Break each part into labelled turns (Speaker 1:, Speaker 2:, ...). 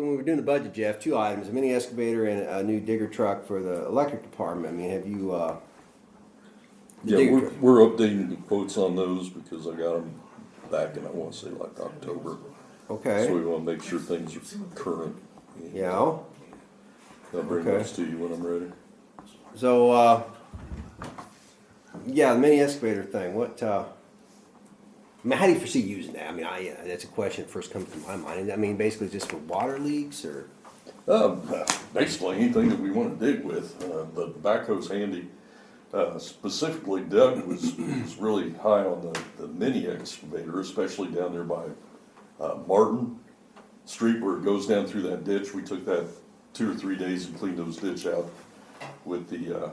Speaker 1: when we were doing the budget, Jeff, two items, a mini excavator and a new digger truck for the electric department. I mean, have you, uh, the
Speaker 2: Yeah,
Speaker 1: digger
Speaker 2: we're,
Speaker 1: truck?
Speaker 2: we're updating the quotes on those because I got them back in, I wanna say like October. So we
Speaker 1: Okay,
Speaker 2: wanna make sure things are current.
Speaker 1: yeah.
Speaker 2: I'll bring
Speaker 1: Okay.
Speaker 2: those to you when I'm ready.
Speaker 1: So, uh, yeah, the mini excavator thing, what, uh, I mean, how do you foresee using that? I mean, I, uh, that's a question that first comes to my mind. I mean, basically just for water leaks or,
Speaker 2: Um, basically, anything that we wanna dig with, uh, the backhoe's handy. Uh, specifically Doug was, was really high on the, the mini excavator, especially down there by, uh, Martin Street where it goes down through that ditch. We took that two or three days and cleaned those ditch out with the, uh,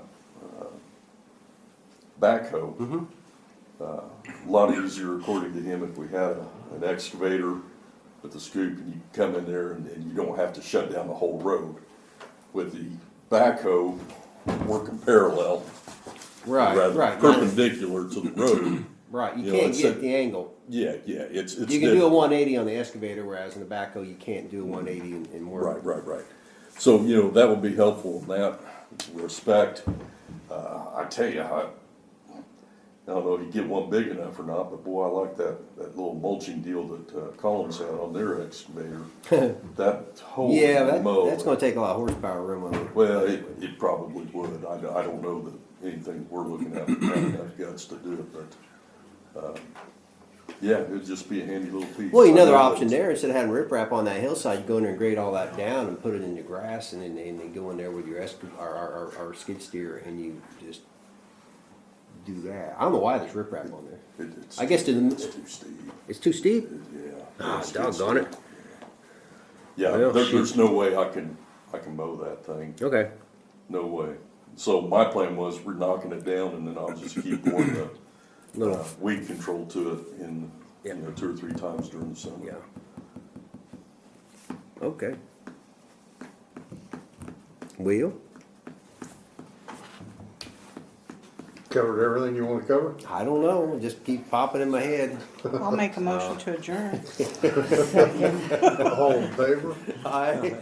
Speaker 2: backhoe. A Lot easier according to him if we had a- an excavator with a scoop and you come in there and, and you don't have to shut down the whole road. With the backhoe working parallel.
Speaker 1: right,
Speaker 2: rather
Speaker 1: right, right,
Speaker 2: Perpendicular to the road.
Speaker 1: right. You
Speaker 2: you know,
Speaker 1: can't
Speaker 2: it's
Speaker 1: get
Speaker 2: a-
Speaker 1: the angle.
Speaker 2: Yeah, yeah, it's, it's.
Speaker 1: You can do a
Speaker 2: different.
Speaker 1: one eighty on the excavator, whereas in the backhoe, you can't do a one eighty in, in work.
Speaker 2: Right, right, right. So, you know, that would be helpful in that respect. Uh, I tell you, I, I don't know if you get one big enough or not, but boy, I like that, that little mulching deal that uh, Collins had on their excavator. That whole
Speaker 1: Yeah, that,
Speaker 2: mow.
Speaker 1: that's gonna take a lot of horsepower room on it.
Speaker 2: Well, it, it probably would. I, don't- I don't know that anything we're looking at, would have enough guts to do it, but, um, yeah, it'd just be a handy little piece.
Speaker 1: Well, another
Speaker 2: I know
Speaker 1: option
Speaker 2: that-
Speaker 1: there, instead of having riprap on that hillside, you go in there and grade all that down and put it in the grass and then, and then go in there with your esca, or, or, or, or skid steer and you just do that. I don't know why there's riprap on there.
Speaker 2: It- it's-
Speaker 1: I guess to
Speaker 2: It's
Speaker 1: the,
Speaker 2: too steep.
Speaker 1: it's too steep.
Speaker 2: Yeah.
Speaker 1: Ah,
Speaker 2: It's- it's-
Speaker 1: doggone it.
Speaker 2: Yeah,
Speaker 1: Well,
Speaker 2: there, there's no way I can, I can mow that thing,
Speaker 1: Okay.
Speaker 2: no way. So my plan was, we're knocking it down and then I'll just keep pouring the
Speaker 1: Little,
Speaker 2: uh, weed control to it in,
Speaker 1: Yeah.
Speaker 2: you know, two or three times during the summer.
Speaker 1: yeah. Okay. Wheel?
Speaker 3: Covered everything you wanna cover?
Speaker 1: I don't know, just keep popping in my head.
Speaker 4: I'll make a motion to adjourn.
Speaker 3: All in favor?
Speaker 1: I.